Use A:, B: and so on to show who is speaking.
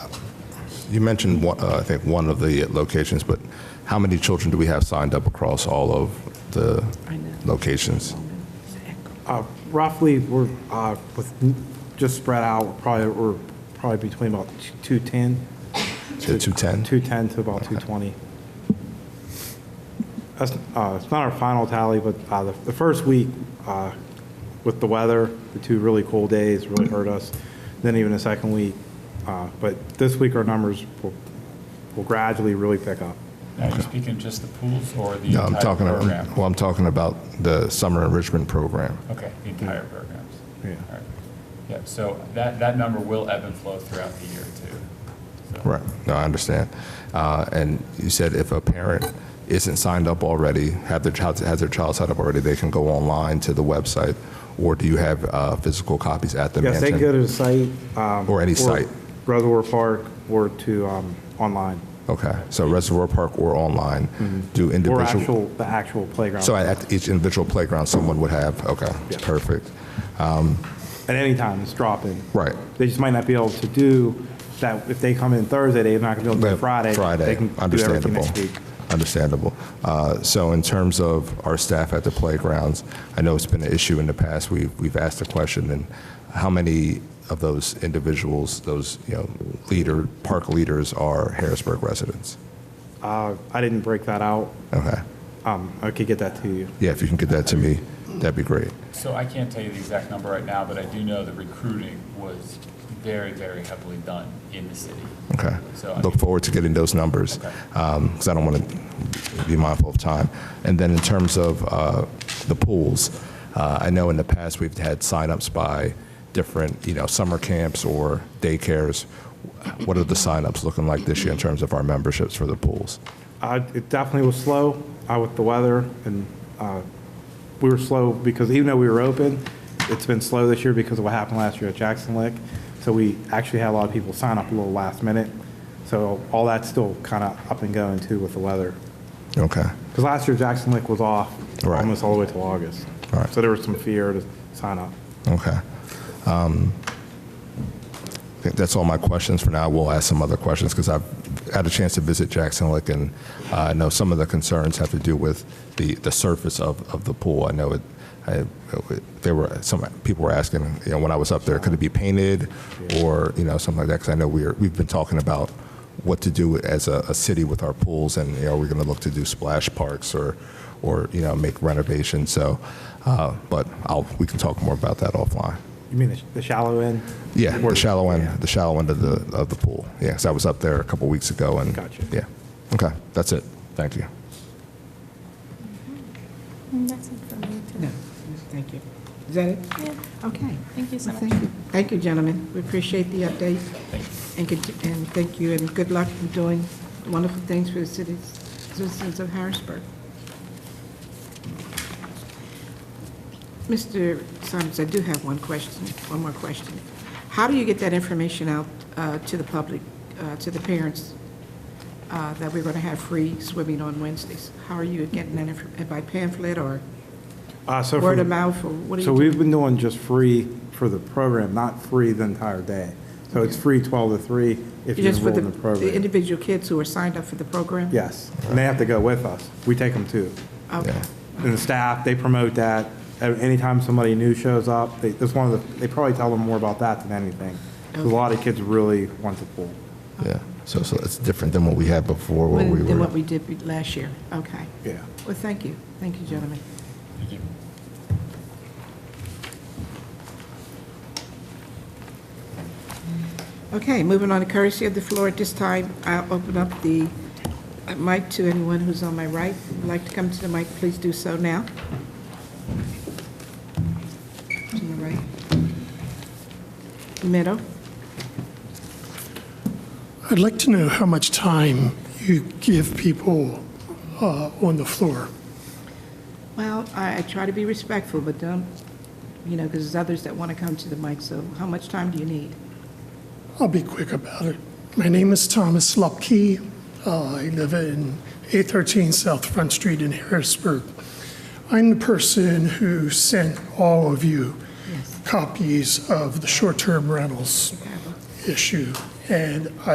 A: You mentioned, one- uh, I think, one of the locations, but how many children do we have signed up across all of the locations?
B: Uh, Roughly, we're, uh, with, just spread out, we're probably, we're probably between about 210.
A: To 210?
B: 210 to about 220. That's, uh, it's not our final tally, but uh, the the first week uh, with the weather, the two really cold days really hurt us, then even the second week. uh, But this week, our numbers will will gradually really pick up.
C: Now, are you speaking just the pools or the
A: No, I'm
C: entire
A: talking,
C: program?
A: well, I'm talking about the summer enrichment program.
C: Okay, the entire programs.
B: Yeah.
C: All right. Yeah, so that, that number will ebb and flow throughout the year too. So-
A: Right, no, I understand. Uh, And you said if a parent isn't signed up already, have their child, has their child signed up already, they can go online to the website, or do you have uh, physical copies at the
B: Yes, they
A: mansion?
B: can go to the site. um,
A: Or any site.
B: Reservoir Park or to um, online,
A: Okay, so Reservoir Park or online, do
B: Mm-hmm. or
A: individual?
B: actual, the actual playground.
A: So at each individual playground, someone would have, okay,
B: Yeah.
A: perfect,
B: At any time, it's drop-in.
A: right.
B: They just might not be able to do that, if they come in Thursday, they're not going to be able to do
A: But
B: Friday. They can do everything
A: understandable.
B: next week.
A: Understandable. Uh, So in terms of our staff at the playgrounds, I know it's been an issue in the past, we've, we've asked the question, and how many of those individuals, those, you know, leader, park leaders are Harrisburg residents?
B: Uh, I didn't break that out.
A: Okay,
B: Um, I could get that to you.
A: yeah, if you can get that to me, that'd be great.
C: So I can't tell you the exact number right now, but I do know the recruiting was very, very heavily done in the city.
A: Okay.
C: So, I
A: Look
C: mean-
A: forward to getting those numbers,
C: Okay.
A: because I don't want to be mindful of time. And then in terms of uh, the pools, uh, I know in the past, we've had signups by different, you know, summer camps or daycares. What are the signups looking like this year in terms of our memberships for the pools?
B: Uh, It definitely was slow uh, with the weather, and uh, we were slow because even though we were open, it's been slow this year because of what happened last year at Jackson Lick. So we actually had a lot of people sign up a little last minute. So all that's still kind of up and going too with the weather.
A: Okay,
B: Because last year Jackson Lick was off
A: Right.
B: almost all the way till August.
A: Right.
B: So there was some fear to sign up.
A: okay. Um, I think that's all my questions for now. We'll ask some other questions, because I've had a chance to visit Jackson Lick, and uh, I know some of the concerns have to do with the, the surface of, of the pool. I know it, I, there were, some people were asking, you know, when I was up there, could it be painted, or, you know, something like that, because I know we're, we've been talking about what to do as a, a city with our pools, and, you know, we're going to look to do splash parks or, or, you know, make renovations, so, uh, but I'll, we can talk more about that offline.
B: You mean the sh- the shallow end?
A: Yeah,
B: Or-
A: the shallow
B: yeah.
A: end, the shallow end of the, of the pool. Yeah, 'cause I was up there a couple weeks ago and.
B: Gotcha.
A: Yeah. Okay, that's it. Thank you.
D: Mm, That's it for me, too.
E: No, thank you. Is that it?
D: Yeah.
E: Okay.
D: Thank you so
E: Well,
D: much.
E: Thank you, Thank you, gentlemen. We appreciate the update.
C: Thank
E: And good, and thank you, and good luck in doing wonderful things for the cities, citizens of Harrisburg. Mr. Summers, I do have one question, one more question. How do you get that information out uh, to the public, uh, to the parents, uh, that we're going to have free swimming on Wednesdays? How are you getting that, infor- by pamphlet or
B: Uh, so
E: word
B: from-
E: of mouth, or what do you?
B: So
E: do?
B: we've been doing just free for the program, not free the entire day. So it's free 12 to 3 if you
E: Just for
B: enroll
E: the,
B: in the
E: the
B: program.
E: individual kids who are signed up for the program?
B: Yes, and they have to go with us. We take them too.
E: Okay.
A: Yeah.
B: And the staff, they promote that. And Anytime somebody new shows up, they, that's one of the, they probably tell them more about that than anything. 'Cause a lot of kids really want the pool.
A: Yeah. So, so it's different than what we had before where we
E: Than than
A: were.
E: what we did be- last year, okay.
B: Yeah.
E: Well, thank you, thank you, gentlemen.
C: Thank you.
E: Okay, moving on to courtesy of the floor, at this time, I'll open up the mic to anyone who's on my right, would like to come to the mic, please do so now. To the right. Middle,
F: I'd like to know how much time you give people uh, on the floor.
E: well, I I try to be respectful, but don't, you know, because there's others that want to come to the mic, so how much time do you need?
F: I'll be quick about it. My name is Thomas Lupke. Uh, I live in 813 South Front Street in Harrisburg. I'm the person who sent all of you copies of the short-term rentals issue, and